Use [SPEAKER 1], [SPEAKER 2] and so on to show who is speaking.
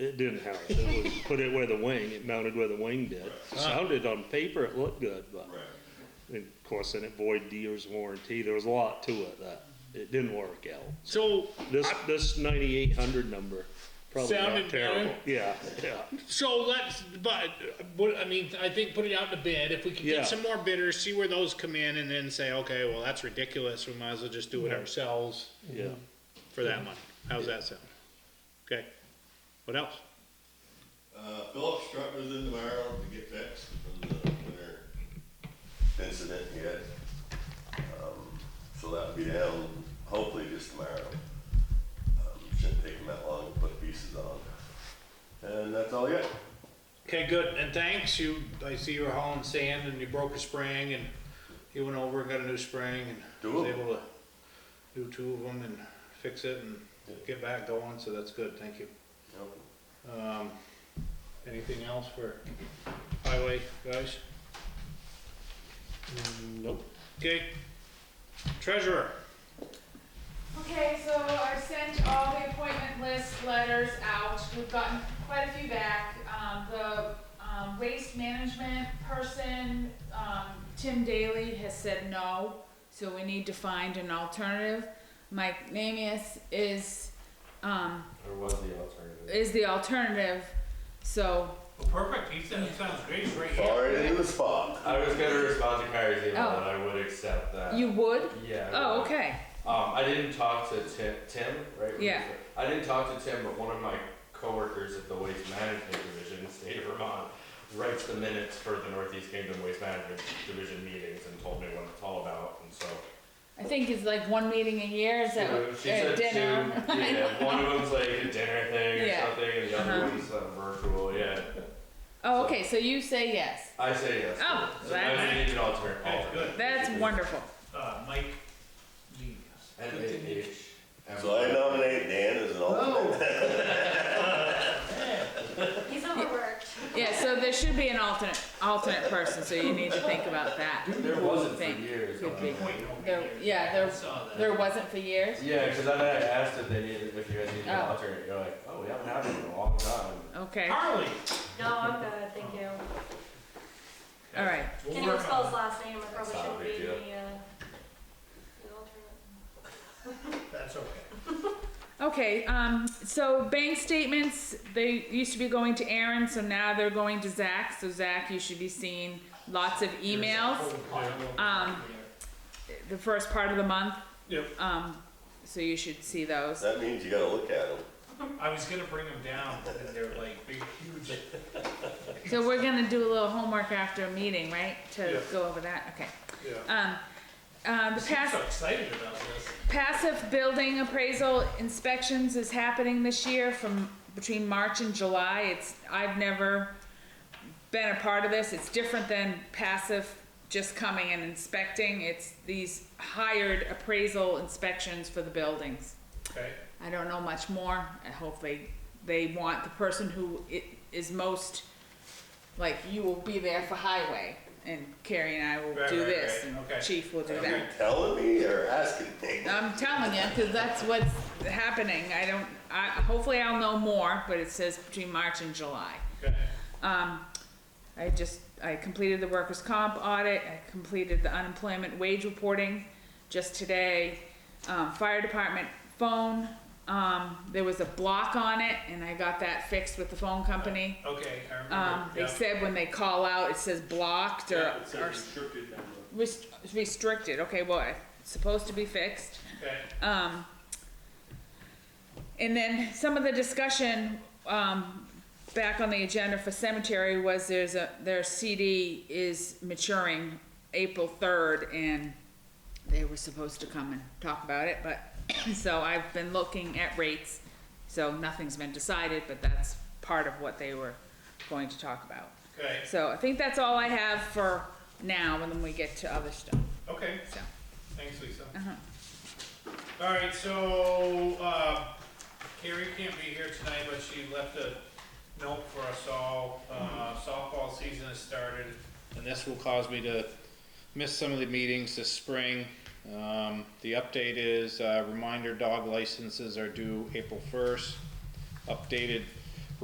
[SPEAKER 1] it didn't house. It was put it where the wing, it mounted where the wing did. Sounded on paper, it looked good, but,
[SPEAKER 2] Right.
[SPEAKER 1] and of course, then it void dealer's warranty. There was a lot to it that it didn't work out.
[SPEAKER 3] So,
[SPEAKER 1] This, this ninety-eight hundred number, probably
[SPEAKER 3] Sounded
[SPEAKER 1] not terrible.
[SPEAKER 3] better?
[SPEAKER 1] Yeah, yeah.
[SPEAKER 3] so let's, but, what, I mean, I think put it out to bid, if we can
[SPEAKER 1] Yeah.
[SPEAKER 3] get some more bidders, see where those come in, and then say, okay, well, that's ridiculous, we might as well just do it ourselves
[SPEAKER 1] Yeah,
[SPEAKER 3] for that money. How's that sound? Okay, what else?
[SPEAKER 2] Uh, Phillips truck was in tomorrow to get fixed from the winter incident he had. Um, So that'll be down hopefully just tomorrow. Um, Shouldn't take him that long to put pieces on. And that's all I got.
[SPEAKER 3] Okay, good, and thanks, you, I see you were hauling sand, and you broke a spring, and you went over and got a new spring, and was
[SPEAKER 2] Two of 'em.
[SPEAKER 3] able to do two of them and fix it and get back going, so that's good, thank you.
[SPEAKER 2] Yep.
[SPEAKER 3] Um, anything else for highway guys?
[SPEAKER 1] nope.
[SPEAKER 3] Okay. Treasurer,
[SPEAKER 4] Okay, so I've sent all the appointment list letters out. We've gotten quite a few back. Um, the, um, waste management person, um, Tim Daly has said no, so we need to find an alternative. Mike Namias is, um,
[SPEAKER 5] Or was the alternative?
[SPEAKER 4] is the alternative, so,
[SPEAKER 6] Well, perfect, he said, it sounds great, right here.
[SPEAKER 2] Far into the spot.
[SPEAKER 5] I was gonna respond to Kyrie's email
[SPEAKER 4] Oh.
[SPEAKER 5] that I would accept that.
[SPEAKER 4] you would?
[SPEAKER 5] Yeah. I
[SPEAKER 4] Oh,
[SPEAKER 5] would.
[SPEAKER 4] okay,
[SPEAKER 5] Um, I didn't talk to Tim, Tim, right?
[SPEAKER 4] Yeah.
[SPEAKER 5] I didn't talk to Tim, but one of my coworkers at the Waste Management Division, state of Vermont, writes the minutes for the Northeast Kingdom Waste Management Division meetings and told me what it's all about, and so.
[SPEAKER 4] I think it's like one meeting a year, is
[SPEAKER 5] You know,
[SPEAKER 4] that,
[SPEAKER 5] She said
[SPEAKER 4] at
[SPEAKER 5] two,
[SPEAKER 4] dinner?
[SPEAKER 5] yeah, one of them's like a dinner thing or
[SPEAKER 4] Yeah.
[SPEAKER 5] something, and the
[SPEAKER 4] Uh-huh.
[SPEAKER 5] other one's uh, virtual, yeah.
[SPEAKER 4] Oh, okay, so you say yes.
[SPEAKER 5] I say yes. to
[SPEAKER 4] Oh,
[SPEAKER 5] it. So
[SPEAKER 4] that-
[SPEAKER 5] I need an alter-
[SPEAKER 6] Okay,
[SPEAKER 5] alternate.
[SPEAKER 6] good.
[SPEAKER 4] That's wonderful.
[SPEAKER 6] Uh, Mike Lee.
[SPEAKER 5] And H.
[SPEAKER 2] So I nominate Dan as an alternate.
[SPEAKER 7] He's overworked.
[SPEAKER 4] Yeah, so there should be an alternate, alternate person, so you need to think about that.
[SPEAKER 5] There wasn't for
[SPEAKER 4] Think
[SPEAKER 5] years.
[SPEAKER 4] could
[SPEAKER 5] on
[SPEAKER 4] be.
[SPEAKER 5] that.
[SPEAKER 6] Point over
[SPEAKER 4] There-
[SPEAKER 6] here.
[SPEAKER 4] yeah, there-
[SPEAKER 6] I saw that.
[SPEAKER 4] There wasn't for years?
[SPEAKER 5] Yeah, because then I asked if they needed, if you guys needed an
[SPEAKER 4] Oh.
[SPEAKER 5] alternate, you're like, oh, we haven't had one in a long time.
[SPEAKER 4] Okay, all
[SPEAKER 6] Harley.
[SPEAKER 7] No, I'm good, thank you.
[SPEAKER 4] right.
[SPEAKER 6] We'll
[SPEAKER 7] Can you
[SPEAKER 6] work
[SPEAKER 7] spell
[SPEAKER 6] on
[SPEAKER 7] his
[SPEAKER 6] that.
[SPEAKER 7] last name? I
[SPEAKER 5] That's
[SPEAKER 7] probably
[SPEAKER 5] not a
[SPEAKER 7] shouldn't be
[SPEAKER 5] big
[SPEAKER 7] the, uh,
[SPEAKER 5] deal.
[SPEAKER 7] the alternate.
[SPEAKER 6] That's okay.
[SPEAKER 4] Okay, um, so bank statements, they used to be going to Aaron, so now they're going to Zach. So Zach, you should be seeing lots of emails, Um, the first part of the month.
[SPEAKER 6] Yep.
[SPEAKER 4] Um, so you should see those.
[SPEAKER 2] That means you gotta look at him.
[SPEAKER 4] Um,
[SPEAKER 6] I was gonna bring them down, but then they're like big, huge.
[SPEAKER 4] So we're gonna do a little homework after a meeting, right?
[SPEAKER 6] Yeah.
[SPEAKER 4] To go over that, okay.
[SPEAKER 6] Yeah.
[SPEAKER 4] Um, uh, the
[SPEAKER 6] I'm
[SPEAKER 4] past.
[SPEAKER 6] so excited about this.
[SPEAKER 4] Passive building appraisal inspections is happening this year from between March and July. It's, I've never been a part of this. It's different than passive just coming and inspecting. It's these hired appraisal inspections for the buildings.
[SPEAKER 6] Okay.
[SPEAKER 4] I don't know much more. I hope they, they want the person who i- is most, like, you will be there for highway and Carrie and I will
[SPEAKER 6] Right,
[SPEAKER 4] do
[SPEAKER 6] right,
[SPEAKER 4] this
[SPEAKER 6] right.
[SPEAKER 4] and
[SPEAKER 6] Okay.
[SPEAKER 4] Chief will do
[SPEAKER 2] Are
[SPEAKER 4] that.
[SPEAKER 2] you telling me or asking me?
[SPEAKER 4] I'm telling you, because that's what's happening. I don't, I, hopefully I'll know more, but it says between March and July.
[SPEAKER 6] Okay.
[SPEAKER 4] Um, I just, I completed the workers' comp audit, I completed the unemployment wage reporting just today. Um, fire department phone, um, there was a block on it, and I got that fixed with the phone company.
[SPEAKER 6] Okay, I remember.
[SPEAKER 4] Um, they
[SPEAKER 6] Yeah.
[SPEAKER 4] said when they call out, it says blocked or, or
[SPEAKER 6] restricted number.
[SPEAKER 4] rest- restricted, okay, well, it's supposed to be fixed.
[SPEAKER 6] Okay.
[SPEAKER 4] Um, and then some of the discussion, um, back on the agenda for cemetery was there's a, their CD is maturing April third and they were supposed to come and talk about it, but, so I've been looking at rates. So nothing's been decided, but that's part of what they were going to talk about.
[SPEAKER 6] Okay.
[SPEAKER 4] So I think that's all I have for now, and then we get to other stuff,
[SPEAKER 6] Okay.
[SPEAKER 4] so.
[SPEAKER 6] Thanks, Lisa.
[SPEAKER 4] Uh-huh.
[SPEAKER 6] All right, so, uh, Carrie can't be here tonight, but she left a note for us all. Uh, softball season has started, and this will cause me to miss some of the meetings this spring. Um, the update is, uh, reminder dog licenses are due April first. Updated